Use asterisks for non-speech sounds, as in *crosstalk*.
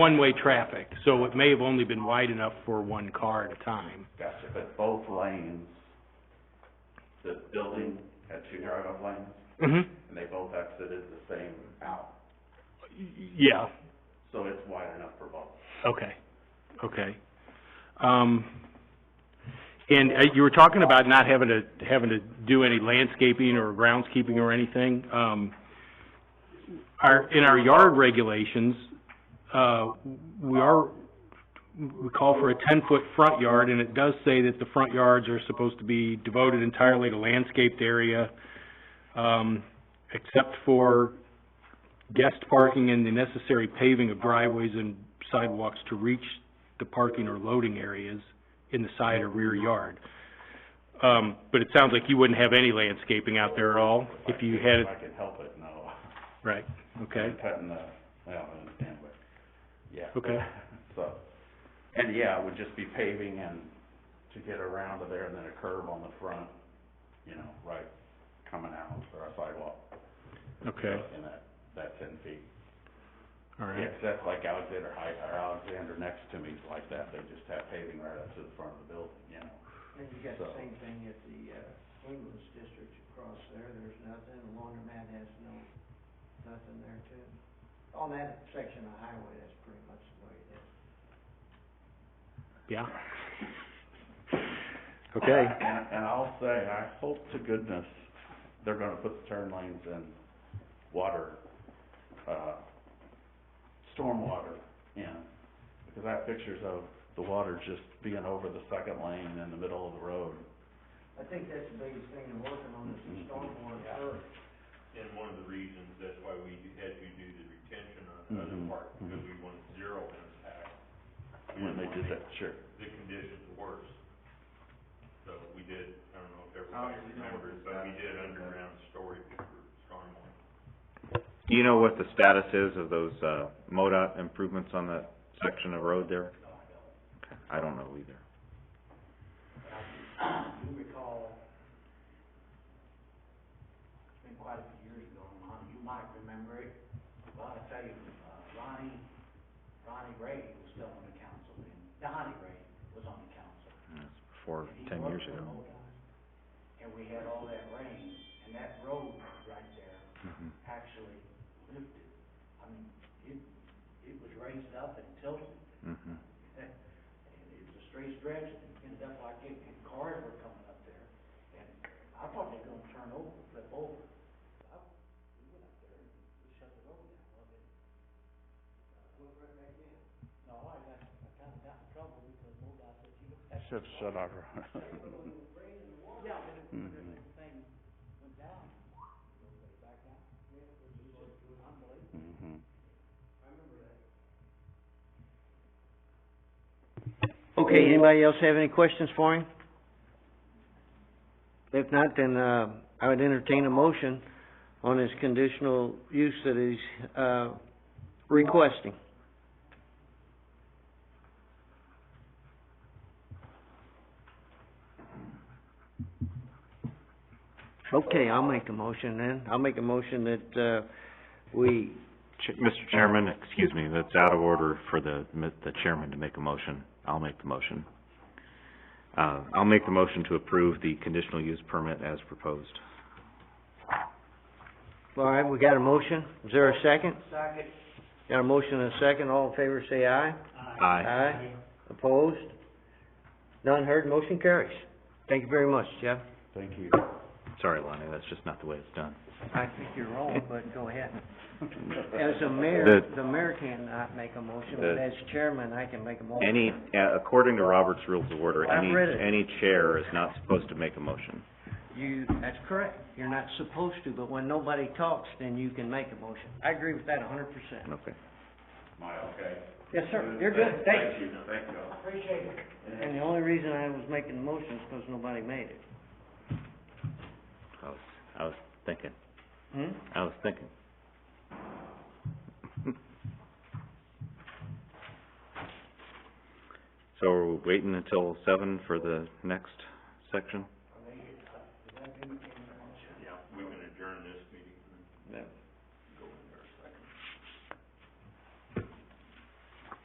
one-way traffic, so it may have only been wide enough for one car at a time. Gotcha, but both lanes, the building had two drive-up lanes, Mm-hmm. and they both exited the same out, Yeah, so it's wide enough for both. okay, okay. Um, and, uh, you were talking about not having to, having to do any landscaping or groundskeeping or anything. Um, our, in our yard regulations, uh, we are, we call for a ten-foot front yard, and it does say that the front yards are supposed to be devoted entirely to landscaped area, um, except for guest parking and the necessary paving of driveways and sidewalks to reach the parking or loading areas in the side or rear yard. Um, but it sounds like you wouldn't have any landscaping out there at all, if you had it, If I could help it, no. right, okay, *laughs* Cutting the, well, I understand, but, yeah. Okay. *laughs* So, and yeah, it would just be paving and to get around to there, and then a curb on the front, you know, right, coming out, or a sidewalk. okay, In that, that ten feet. all Yeah, right, 'cause that's like Alexander High, or Alexander next to me is like that, they just have paving right up to the front of the building, you know? And you got So- the same thing at the, uh, English district across there, there's nothing, Laundromat has no, nothing there too. On that section of highway, that's pretty much the way it is. uh, yeah. *laughs* Okay, And, and I'll say, I hope to goodness they're gonna put the turn lanes in water, uh, stormwater in. Because I have pictures of the water just being over the second lane in the middle of the road. I think that's the biggest thing they're working on is the stormwater curb. And one of the reasons, that's why we had to do the retention on the other Mhm, part, because mhm. we wanted zero impact. We When they didn't did want that, sure. to make The conditions worse. So we did, I don't know if everybody Obviously, no remembers, one's but we got it. did underground storage for stormwater. Do you know what the status is of those, uh, MoDOT improvements on that section of road there? I don't know either. Do you recall, it's been quite a few years ago, Ron, you might remember it, but I tell you, uh, Ronnie, Ronnie Ray was still on the council, and Donnie Ray was on the council. That's before And he ten years worked for ago. ODOT, And we had all that rain, and that road right there Mhm. actually lifted. I mean, it, it was raised up and tilted, Mhm. and it was a straight stretch, and it ended up like it, and cars were coming up there. And I thought they were gonna turn over, flip over. I, we went up there and we shut the road down, well, it, uh, went right back in. No, I got, I kinda got in trouble because MoDOT said, you know, that's. Should've shut off. Mm-hmm. Yeah, but it, but Mhm. the thing went down, it back down. Yeah. Unbelievable. Mhm. Okay, anybody else have any questions for him? If not, then, uh, I would entertain a motion on his conditional use that he's, uh, requesting. Okay, I'll make a motion then. I'll make a motion that, uh, we, Ch- Mr. Chairman, excuse me, that's out of order for the, mi- the chairman to make a motion. I'll make the motion. Uh, I'll make the motion to approve the conditional use permit as proposed. all right, we got a motion. Is there a second? Second. Got a motion and a second. All in favor, say aye. Aye. Opposed? None heard, motion carries. Thank you very much, Jeff. Thank you. Sorry, Lonnie, that's just not the way it's done. I think you're *laughs* wrong, but go ahead. As a mayor, The- the mayor cannot make a motion, but The- as chairman, I can make a motion. Any, uh, according to Robert's Rules of Order, I've any, read it. any chair is not supposed to make a motion. You, that's correct. You're not supposed to, but when nobody talks, then you can make a motion. I agree with that a hundred percent. Okay. Am I okay? Yes, sir. You're good. Thanks. Thank you, thank you. Appreciate it. And the only reason I was making the motion is because nobody made it. I was, I was thinking, Hmm? I was thinking. So are we waiting until seven for the next section?